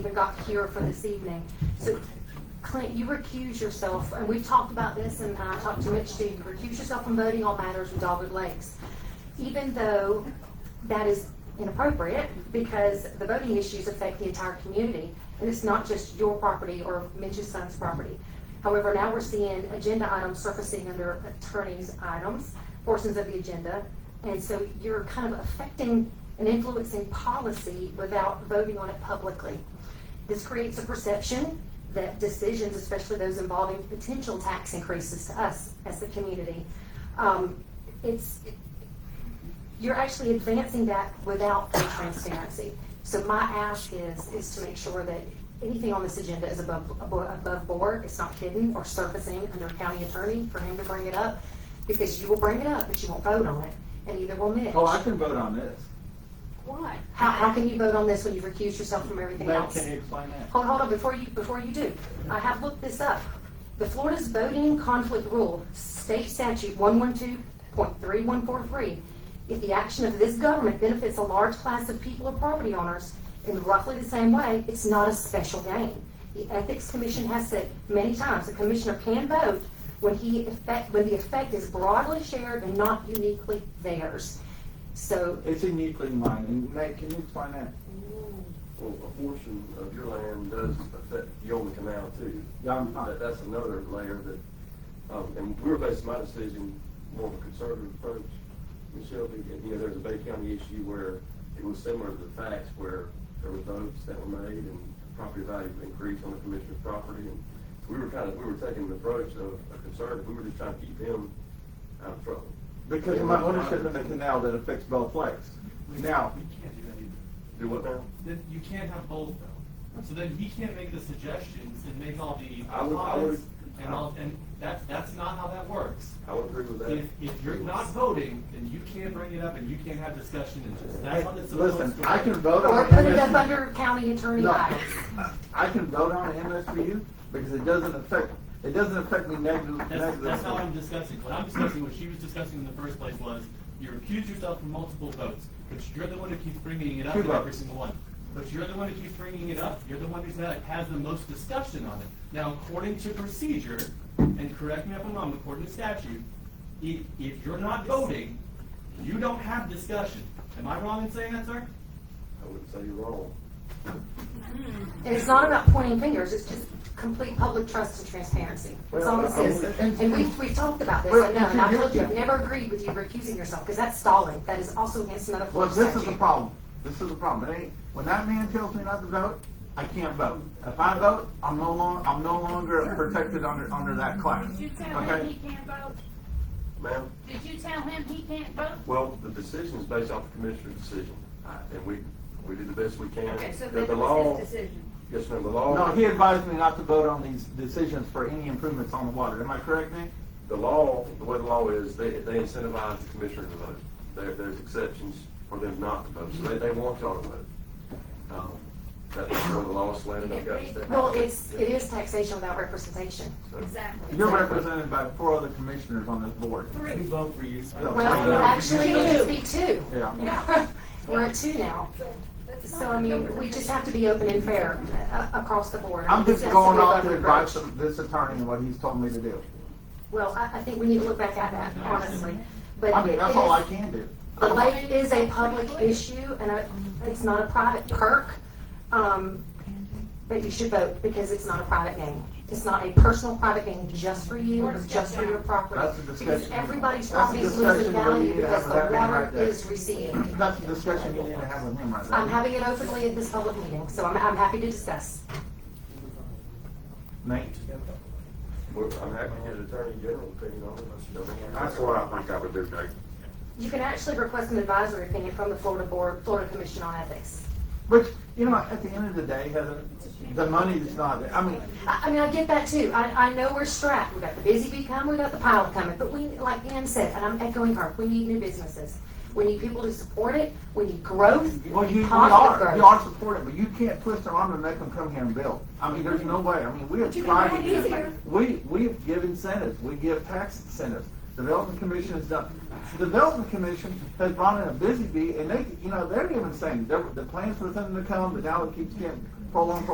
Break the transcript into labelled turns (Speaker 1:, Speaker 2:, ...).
Speaker 1: even got here for this evening. So Clint, you recuse yourself, and we've talked about this, and I talked to Mitch too, you recuse yourself from voting on matters with Dogwood Lakes. Even though that is inappropriate, because the voting issues affect the entire community, and it's not just your property or Mitch's son's property. However, now we're seeing agenda items surfacing under attorney's items, portions of the agenda, and so you're kind of affecting and influencing policy without voting on it publicly. This creates a perception that decisions, especially those involving potential tax increases to us as the community, um, it's, you're actually advancing that without full transparency. So my ask is, is to make sure that anything on this agenda is above, abo- above board, it's not hidden or surfacing under county attorney for him to bring it up, because you will bring it up, but you won't vote on it, and either will Mitch.
Speaker 2: Oh, I can vote on this.
Speaker 3: Why?
Speaker 1: How, how can you vote on this when you've recused yourself from everything
Speaker 2: Now,
Speaker 1: else?
Speaker 2: can you explain that?
Speaker 1: Hold, hold on, before you, before you do, I have looked this up. The Florida's voting conflict rule, state statute one one two point three one four three. If the action of this government benefits a large class of people or property owners in roughly the same way, it's not a special gain. The Ethics Commission has said many times, the commissioner can vote when he effect, when the effect is broadly shared and not uniquely theirs. So,
Speaker 2: It's uniquely mine, and Nate, can you explain that?
Speaker 4: Well, a portion of your land does affect, you own the canal too.
Speaker 2: Yeah, I'm fine.
Speaker 4: That- That's another layer that, um, and we were basing my decision more of a conservative approach, Michelle, and, you know, there's a Bay County issue where it was similar to the facts where there were votes that were made and property value increased on the commissioner's property, and we were kind of, we were taking the approach of a conservative, we were just trying to keep him out of trouble.
Speaker 2: Because of my ownership in the canal that affects both lakes. Now,
Speaker 5: You can't do that either.
Speaker 4: Do what now?
Speaker 5: Then you can't have both though. So then he can't make the suggestions and make all the
Speaker 4: I would- I would-
Speaker 5: comments and all, and that's, that's not how that works.
Speaker 4: I would agree with that.
Speaker 5: If, if you're not voting, then you can't bring it up and you can't have discussion and just, that's what it's supposed to
Speaker 2: listen, I can
Speaker 5: be.
Speaker 2: vote
Speaker 1: or
Speaker 2: on
Speaker 1: put it up
Speaker 2: MSBU.
Speaker 1: under county attorney
Speaker 2: No.
Speaker 1: items.
Speaker 2: I can vote on MSBU because it doesn't affect, it doesn't affect me negative-
Speaker 5: That's,
Speaker 2: negatively.
Speaker 5: that's not what I'm discussing. What I'm discussing, what she was discussing in the first place was, you accuse yourself from multiple votes, but you're the one who keeps bringing it up
Speaker 2: Two
Speaker 5: in every
Speaker 2: votes.
Speaker 5: single one. But you're the one who keeps bringing it up, you're the one who's that has the most discussion on it. Now, according to procedure, and correct me if I'm wrong, according to statute, if, if you're not voting, you don't have discussion. Am I wrong in saying that, sir?
Speaker 4: I wouldn't say you're wrong.
Speaker 1: And it's not about pointing fingers, it's just complete public trust and transparency. That's all this is.
Speaker 2: Well, and-
Speaker 1: And we, we talked about this, I know, and I told you, I've never agreed with you recusing yourself, because that's stalling. That is also against another
Speaker 2: Well,
Speaker 1: Florida
Speaker 2: this is the
Speaker 1: statute.
Speaker 2: problem. This is the problem. It ain't- when that man tells me not to vote, I can't vote. If I vote, I'm no longer, I'm no longer protected under, under that class.
Speaker 3: Did you tell him
Speaker 2: Okay?
Speaker 3: he can't vote?
Speaker 4: Ma'am?
Speaker 3: Did you tell him he can't vote?
Speaker 4: Well, the decision is based off the commissioner's decision, I- and we, we did the best we can.
Speaker 6: Okay, so
Speaker 4: The-
Speaker 6: that
Speaker 4: the
Speaker 6: was
Speaker 4: law-
Speaker 6: his decision.
Speaker 4: Yes, ma'am, the law.
Speaker 2: No, he advised me not to vote on these decisions for any improvements on the water. Am I correct, Nick?
Speaker 4: The law, the way the law is, they, they incentivize the commissioner to vote. There, there's exceptions for them not to vote, so they, they want y'all to vote. Um, That's where the law is landed, I've got to say.
Speaker 1: Well, it's, it is taxation without representation.
Speaker 4: So-
Speaker 6: Exactly.
Speaker 2: You're represented by four other commissioners on this board.
Speaker 6: Three.
Speaker 5: vote for you.
Speaker 1: Well, actually, it should be two.
Speaker 2: Yeah.
Speaker 1: We're at two now.
Speaker 6: That's
Speaker 1: So,
Speaker 6: fine.
Speaker 1: I mean, we just have to be open and fair uh, across the board.
Speaker 2: I'm
Speaker 1: This
Speaker 2: just
Speaker 1: has to
Speaker 2: going
Speaker 1: be
Speaker 2: off
Speaker 1: above
Speaker 2: the advice
Speaker 1: reproach.
Speaker 2: of this attorney and what he's told me to do.
Speaker 1: Well, I, I think we need to look back at that, honestly. But
Speaker 2: I mean, that's
Speaker 1: it
Speaker 2: all I
Speaker 1: is-
Speaker 2: can do.
Speaker 1: The lake is a public issue and a- it's not a private perk, um, but you should vote because it's not a private game. It's not a personal private game just for you or just for your property.
Speaker 2: That's a discussion.
Speaker 1: Because everybody's
Speaker 2: That's a
Speaker 1: property is losing
Speaker 2: discussion where
Speaker 1: value
Speaker 2: you have
Speaker 1: because the
Speaker 2: that man
Speaker 1: water
Speaker 2: right there.
Speaker 1: is receding.
Speaker 2: That's a discussion you need to have with him right
Speaker 1: I'm
Speaker 2: there.
Speaker 1: having it openly at this public meeting, so I'm, I'm happy to discuss.
Speaker 2: Nate?
Speaker 4: we're- I'm happy to get an attorney general opinion on it.
Speaker 7: That's what I think I would do, Nate.
Speaker 1: You can actually request an advisory opinion from the Florida Board, Florida Commission on Ethics.
Speaker 2: Which, you know, at the end of the day, Heather, the money's not, I mean,
Speaker 1: I, I mean, I get that too. I, I know we're strapped. We got the busy bee coming, we got the pile coming, but we, like Ann said, and I'm echoing her, we need new businesses. We need people to support it. We need growth.
Speaker 2: well, you, you
Speaker 1: Positive
Speaker 2: are,
Speaker 1: growth.
Speaker 2: you are supportive, but you can't twist their arm and make them come here and build. I mean, there's no way. I mean, we have
Speaker 6: You can
Speaker 2: tried to
Speaker 6: make it easier.
Speaker 2: do, we, we give incentives, we give tax incentives. Development Commission has done, Development Commission has brought in a busy bee and they, you know, they're even saying, they're- the plans for them to come, but now it keeps getting prolonged,